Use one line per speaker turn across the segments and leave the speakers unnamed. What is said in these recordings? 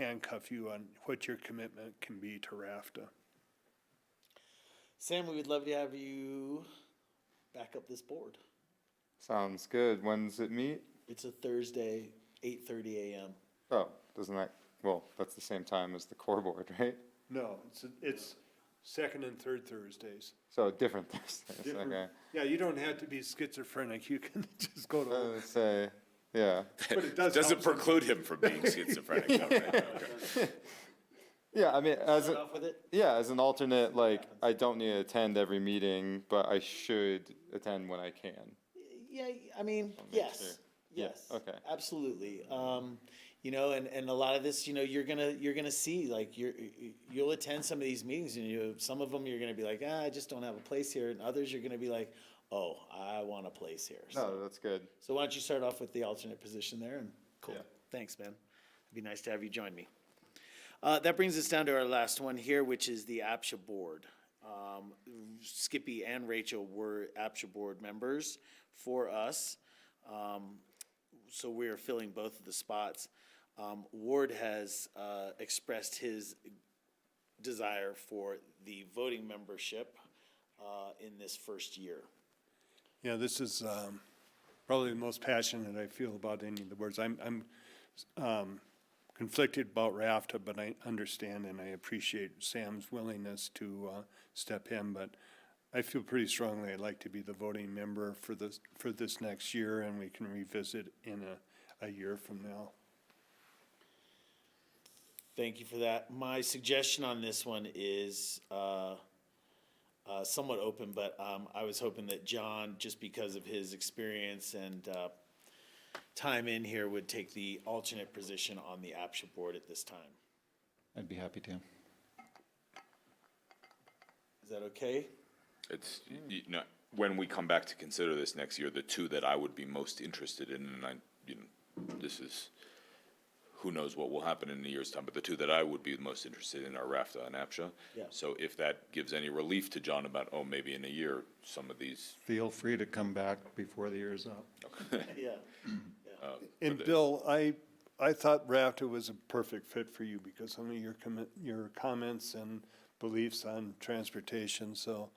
handcuff you on what your commitment can be to RAFTA.
Sam, we would love to have you back up this board.
Sounds good. When's it meet?
It's a Thursday, eight thirty AM.
Oh, doesn't that, well, that's the same time as the core board, right?
No, it's, it's second and third Thursdays.
So different Thursdays,
Different-
okay.
Yeah, you don't have to be schizophrenic, you can just go
I
to,
would say, yeah.
but it does help
Doesn't
some-
preclude him from being schizophrenic. though, right?
Yeah, I mean, as,
Start
a-
off with it?
yeah, as an alternate, like, I don't need to attend every meeting, but I should attend when I can.
Yeah, I mean,
make sure.
yes,
Yeah,
yes.
okay.
Absolutely. Um, you know, and, and a lot of this, you know, you're gonna, you're gonna see, like, you're, you'll attend some of these meetings and you, some of them, you're gonna be like, ah, I just don't have a place here. And others, you're gonna be like, oh, I want a place here. So-
No, Oh, that's good.
So why don't you start off with the alternate position there and, cool,
Yeah.
thanks, man. It'd be nice to have you join me. Uh, that brings us down to our last one here, which is the APSHA board. Um, Skippy and Rachel were APSHA board members for us. Um, so we are filling both of the spots. Um, Ward has, uh, expressed his desire for the voting membership, uh, in this first year.
Yeah, this is um, probably the most passionate I feel about any of the boards. I'm, I'm um, conflicted about RAFTA, but I understand and I appreciate Sam's willingness to uh, step in, but I feel pretty strongly I'd like to be the voting member for this, for this next year, and we can revisit in a, a year from now.
Thank you for that. My suggestion on this one is uh, uh, somewhat open, but um, I was hoping that John, just because of his experience and uh, time in here, would take the alternate position on the APSHA board at this time.
I'd be happy to.
Is that okay?
It's, y- you know, when we come back to consider this next year, the two that I would be most interested in, and I, you know, this is, who knows what will happen in a year's time, but the two that I would be most interested in are RAFTA and APSHA.
Yeah.
So if that gives any relief to John about, oh, maybe in a year, some of these,
Feel free to come back before the year's up.
Yeah.
And Bill, I, I thought RAFTA was a perfect fit for you because some of your commit, your comments and beliefs on transportation, so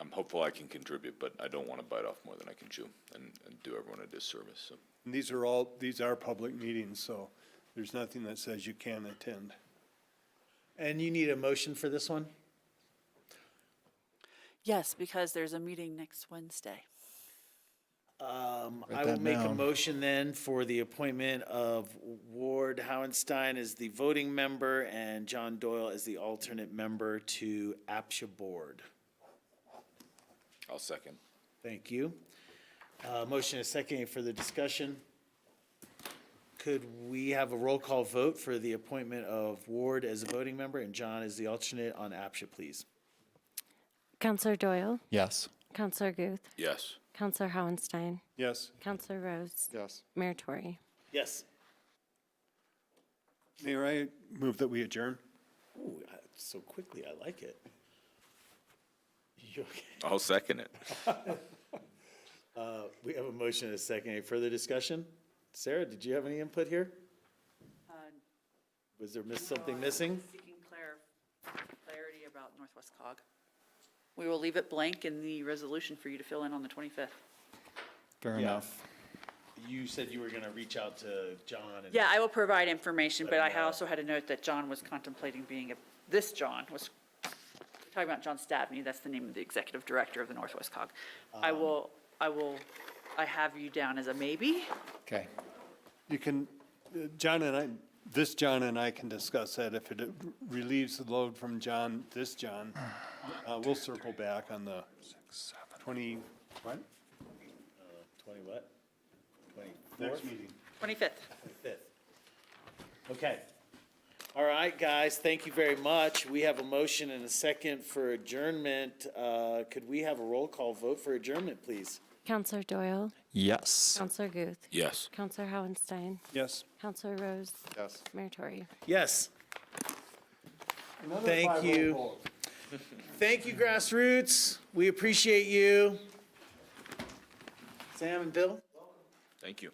I'm hopeful I can contribute, but I don't want to bite off more than I can chew and, and do everyone a disservice, so.
And These are all, these are public meetings, so there's nothing that says you can't attend.
And you need a motion for this one?
Yes, because there's a meeting next Wednesday.
Um,
Write
I will
that
make a
down.
motion then for the appointment of Ward Howenstein as the voting member and John Doyle as the alternate member to APSHA Board.
I'll second.
Thank you. Uh, motion is second. Any further discussion? Could we have a roll call vote for the appointment of Ward as a voting member and John as the alternate on APSHA, please?
Counselor Doyle,
Yes.
Counselor Guth,
Yes.
Counselor Howenstein,
Yes,
Counselor Rose,
Yes.
Mayor Tory.
Yes.
Mayor, I move that we adjourn.
Ooh, I- so quickly. I like it. You okay?
I'll second it.
Uh, We have a motion and a second. Any further discussion? Sarah, did you have any input here? Was there miss, something missing?
Seeking clar- clarity about Northwest cog. We will leave it blank in the resolution for you to fill in on the 25th.
Fair
Yeah.
enough.
You said you were gonna reach out to John and.
Yeah, I will provide information, but I
Let 'em know.
also had a note that John was contemplating being, a this John was, talking about John Stabney, that's the name of the executive director of the Northwest cog. I
Um.
will, I will, I have you down as a maybe.
Okay.
You can, uh, John and I, this John and I can discuss that if it relieves the load from John, this John. Uh, we'll circle back on the twenty, what?
Twenty what? Twenty-fourth?
Next meeting.
25th.
Fifth. Okay. All right, guys, thank you very much. We have a motion and a second for adjournment. Uh, could we have a roll call vote for adjournment, please?
Counselor Doyle,
Yes.
Counselor Guth,
Yes.
Counselor Howenstein,
Yes.
Counselor Rose,
Yes.
Mayor Tory.
Yes. Thank five-oh you. vote. Thank you, grassroots. We appreciate you. Sam and Bill?
Thank you.